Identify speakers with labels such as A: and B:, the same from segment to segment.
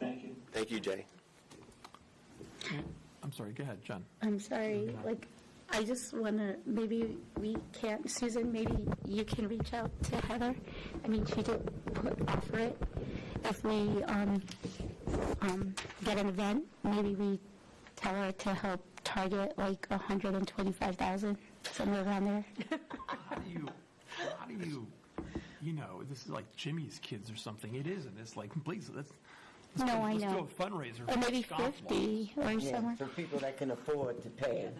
A: Thank you, Jay.
B: I'm sorry, go ahead, John.
C: I'm sorry, like, I just want to, maybe we can't, Susan, maybe you can reach out to Heather. I mean, she did put, offer it. If we, um, um, get an event, maybe we tell her to help target like 125,000, somewhere around there.
B: How do you, how do you, you know, this is like Jimmy's kids or something. It isn't. It's like, please, let's, let's,
C: No,
B: do-
C: I
B: let's
C: know.
B: do a fundraiser.
C: Or
B: for
C: maybe
B: Scofflaw.
C: 50 or
D: Yeah,
C: somewhere.
D: for people that can afford to pay.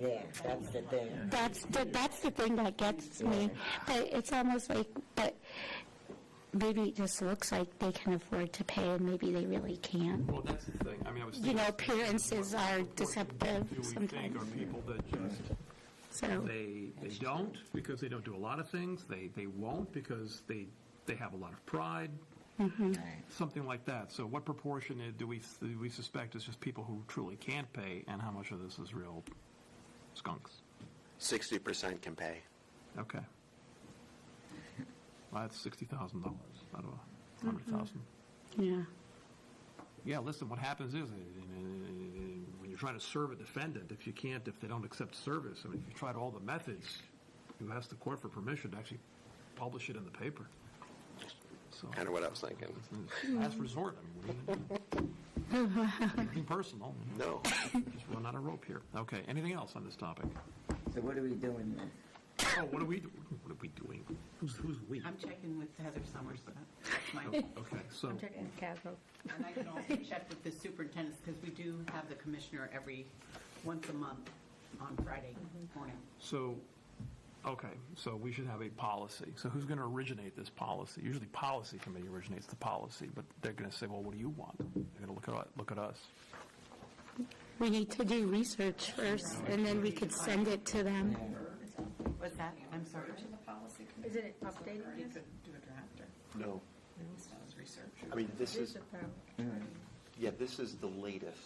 D: Yeah, that's the thing.
C: That's the, that's the thing that gets me. But it's almost like, but maybe it just looks like they can afford to pay and maybe they really can't.
B: Well, that's the thing. I mean, I was
C: You
B: thinking,
C: know, appearances are deceptive
B: do we think are
C: sometimes.
B: people that just,
C: So,
B: they, they don't because they don't do a lot of things. They, they won't because they, they have a lot of pride. Something like that. So what proportion i- do we, do we suspect is just people who truly can't pay and how much of this is real skunks?
A: 60% can pay.
B: Okay. Well, that's sixty thousand dollars out of a hundred thousand.
C: yeah.
B: Yeah, listen, what happens is, uh, uh, when you're trying to serve a defendant, if you can't, if they don't accept service, I mean, if you tried all the methods, you ask the court for permission to actually publish it in the paper. So,
A: Kind of what I was thinking.
B: it's a last resort, I mean, what are you gonna do? Nothing personal, you
A: No.
B: know, just run out of rope here. Okay, anything else on this topic?
D: So what are we doing then?
B: Oh, what are we, do- what are we doing? Who's, who's we?
E: I'm checking with Heather Summers, but that's my, and
B: Okay, so.
E: I can also check with the superintendents, because we do have the commissioner every, once a month on Friday morning.
B: So, okay, so we should have a policy. So who's going to originate this policy? Usually policy committee originates the policy, but they're going to say, well, what do you want? They're going to look at, look at us.
C: We need to do research first and then we could send it to them.
E: What's that? I'm sorry.
F: Isn't it updating
E: You
F: this?
E: could do a draft
A: No.
E: or research.
A: I mean, this is,
F: the problem.
A: yeah, this is the latest.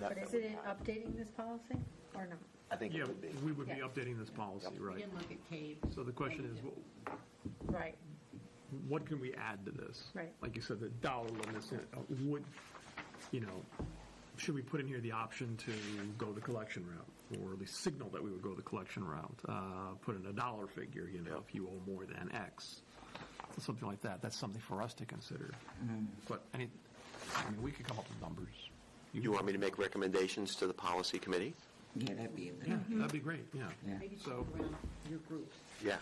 F: But isn't it updating this policy or not?
A: I think it would be.
B: we would be
F: Yeah.
B: updating this policy,
E: We
B: right?
E: can look at Cave.
B: So the question is,
E: Thank
B: wh-
F: Right.
B: what can we add to this?
F: Right.
B: Like you said, the dollar limits, uh, would, you know, should we put in here the option to go the collection route? Or at least signal that we would go the collection route? Uh, Put in a dollar figure, you know, if you owe more than X. something like that. That's something for us to consider.
A: Mm-hmm.
B: But any, I mean, we could come up with numbers.
A: You want me to make recommendations to the policy committee?
D: Yeah, that'd be a
B: Yeah,
D: little.
B: that'd be great. Yeah.
D: Yeah.
E: Maybe check
B: So-
E: around your groups.
A: Yeah,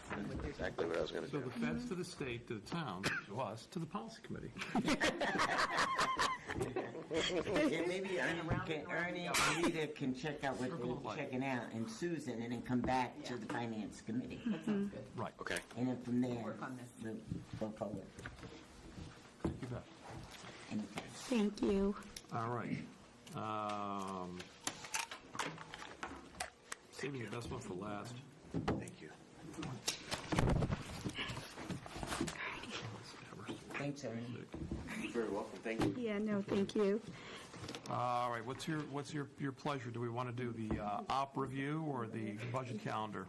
A: exactly what I was going to
B: So
A: do.
B: the feds to the state, to the town, to us, to the policy committee.
D: Yeah, maybe Ernie can, Ernie and Rita can check out what
B: Circle of
D: they're
B: life.
D: checking out, and Susan, and then come back to the finance committee.
E: That sounds good.
B: Right.
A: Okay.
D: And then from there,
E: Work on this.
D: we'll go forward.
B: You bet.
D: Anything.
C: Thank you.
B: All right. Um, Saving the best one for last.
A: Thank you.
D: Thanks, Ernie.
A: You're very welcome. Thank you.
C: Yeah, no, thank you.
B: All right, what's your, what's your, your pleasure? Do we want to do the uh, op review or the budget calendar?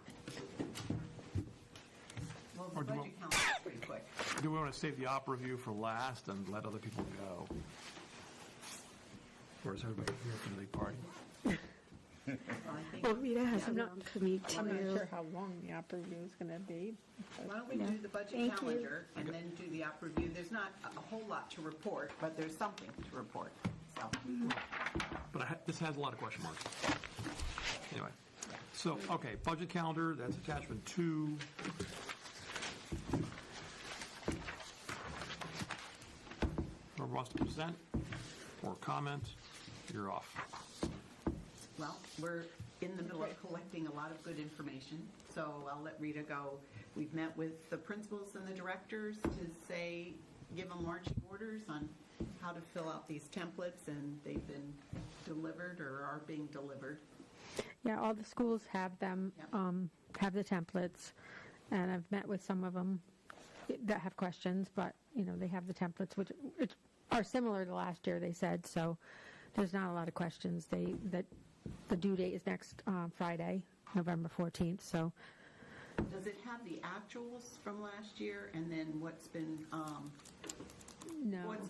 E: Well,
B: Or
E: the
B: do you
E: budget council is pretty quick.
B: Do we want to save the op review for last and let other people go? Or is everybody here for the big party?
E: So I think-
C: Well, Rita has a
E: Yeah.
C: long commute
E: I'm not
C: too.
G: how long the opera view is going to be.
E: Why don't we do the budget
C: Thank you.
E: calendar and then do the op review? There's not a a whole lot to report, but there's something to report, so.
B: But I, ha- this has a lot of question marks. Anyway, so, okay, budget calendar, that's attachment two. Whoever wants to present or comment, you're off.
E: Well, we're in the middle of collecting a lot of good information, so I'll let Rita go. We've met with the principals and the directors to say, give them marching orders on how to fill out these templates, and they've been delivered or are being delivered.
G: Yeah, all the schools have them,
E: Yep.
G: um, have the templates, and I've met with some of them that have questions, but, you know, they have the templates, which which are similar to last year, they said, so there's not a lot of questions. They, that, the due date is next uh, Friday, November 14th, so
E: Does it have the actuals from last year, and then what's been, um,
G: no.
E: what's